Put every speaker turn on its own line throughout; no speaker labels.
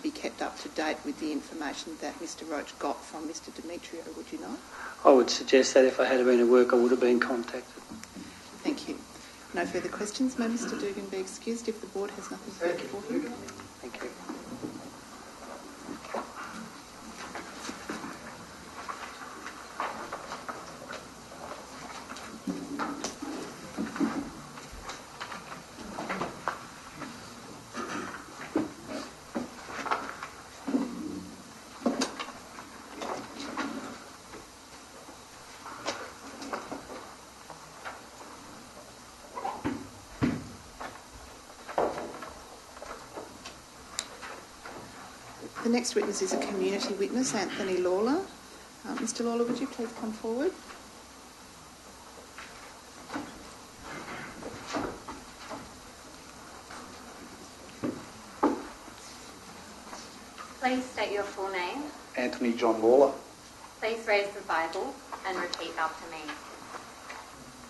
be kept up to date with the information that Mr Roach got from Mr Demetrio, would you not?
I would suggest that if I had been at work, I would have been contacted.
Thank you. No further questions. May Mr Dugan be excused if the board has nothing further for him.
Thank you.
The next witness is a community witness, Anthony Lawler. Uh, Mr Lawler, would you please come forward?
Please state your full name.
Anthony John Lawler.
Please raise the Bible and repeat after me.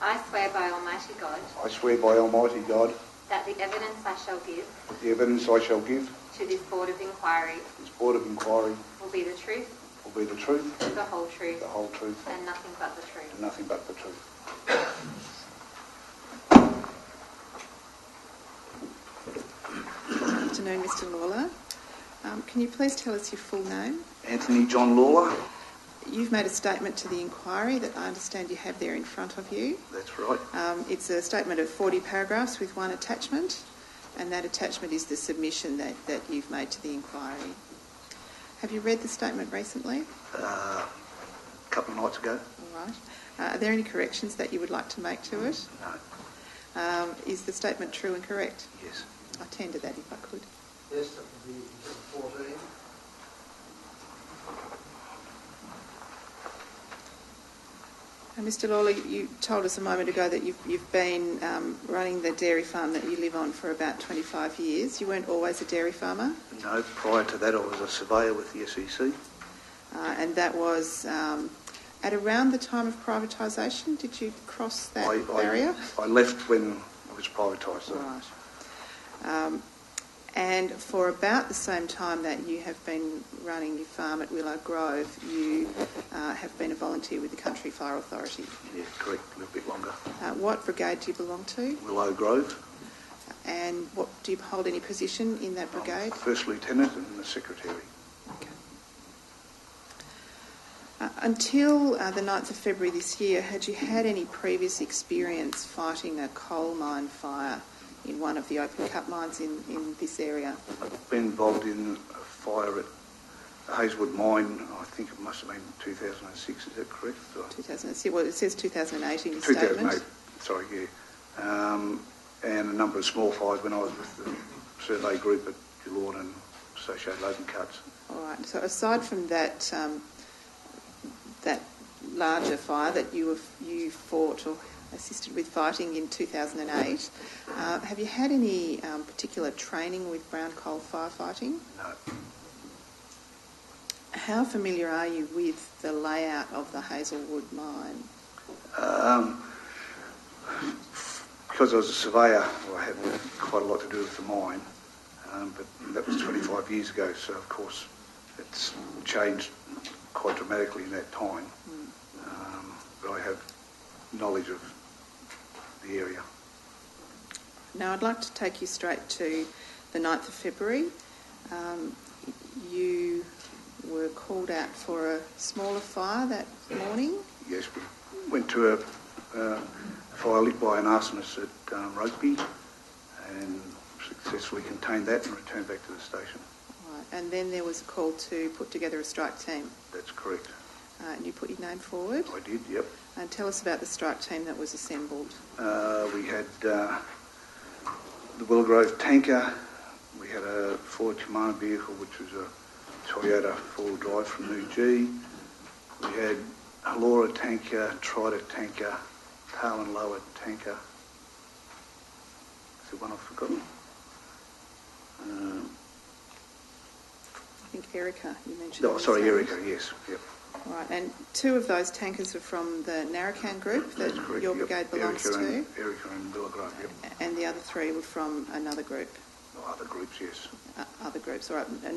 I swear by Almighty God
I swear by Almighty God
that the evidence I shall give
that the evidence I shall give
to this Board of Inquiry
this Board of Inquiry
will be the truth,
will be the truth,
the whole truth,
the whole truth,
and nothing but the truth.
and nothing but the truth.
Good afternoon, Mr Lawler. Um, can you please tell us your full name?
Anthony John Lawler.
You've made a statement to the inquiry that I understand you have there in front of you.
That's right.
Um, it's a statement of 40 paragraphs with one attachment, and that attachment is the submission that, that you've made to the inquiry. Have you read the statement recently?
Uh, a couple of nights ago.
All right. Uh, are there any corrections that you would like to make to it?
No.
Um, is the statement true and correct?
Yes.
I'll tender that if I could.
Yes, that would be fourteen.
And Uh, Mr Lawler, you told us a moment ago that you've, you've been um, running the dairy farm that you live on for about 25 years. You weren't always a dairy farmer,
No. Prior to that, I was a surveyor with the E SEC.
uh, and that was um, at around the time of privatisation. Did you cross that
I,
barrier?
I, I left when it was privatised. so-
Right. Um, and for about the same time that you have been running your farm at Willow Grove, you uh, have been a volunteer with the Country Fire Authority.
Yeah, correct. A little bit longer.
Uh, what brigade do you belong to,
Willow Grove.
and what do you hold any position in that
I'm
brigade?
First lieutenant and the secretary.
Uh, until uh, the 9th of February this year, had you had any previous experience fighting a coal mine fire in one of the open cut mines in, in this area?
I've been involved in a fire at the Hazelwood Mine. I think it must have been 2006. Is that correct? Or-
2006, well, it says 2008 in your statement.
2008, sorry, yeah. Um, and a number of small fires when I was with the survey group at Geelong and Associated Logan Cuts.
All right. So aside from that, um, that larger fire that you have, you fought or assisted with fighting in 2008, uh, have you had any um, particular training with brown coal firefighting?
No,
How familiar are you with the layout of the Hazelwood mine?
Um, because I was a surveyor, I had quite a lot to do with the mine, um, but that was 25 years ago, so of course it's changed quite dramatically in that time. Um, but I have knowledge of the area.
Now, I'd like to take you straight to the 9th of February. Um, you were called out for a smaller fire that morning.
Yes, we went to a uh, fire lit by an arsonist at um, Rugby and successfully contained that and returned back to the station.
Right, and then there was a call to put together a strike team,
That's correct.
uh, and you put your name forward.
I did, yep.
And tell us about the strike team that was assembled.
Uh, we had uh, the Willowgrove tanker, we had a Ford Commander vehicle, which was a Toyota four-wheel drive from New G. We had Halora tanker, Trident tanker, Tail and Lower tanker. Is there one I've forgotten? Um,
I think Erica, you mentioned.
Oh,
was
sorry,
named.
Erica, yes, yep.
Right, and two of those tankers were from the Narracan group that
That's correct,
your
yep.
brigade belongs
Erica
to,
and, Erica and Willowgrove, yep.
and the other three were from another group,
Other groups, yes.
uh, other groups. All right, and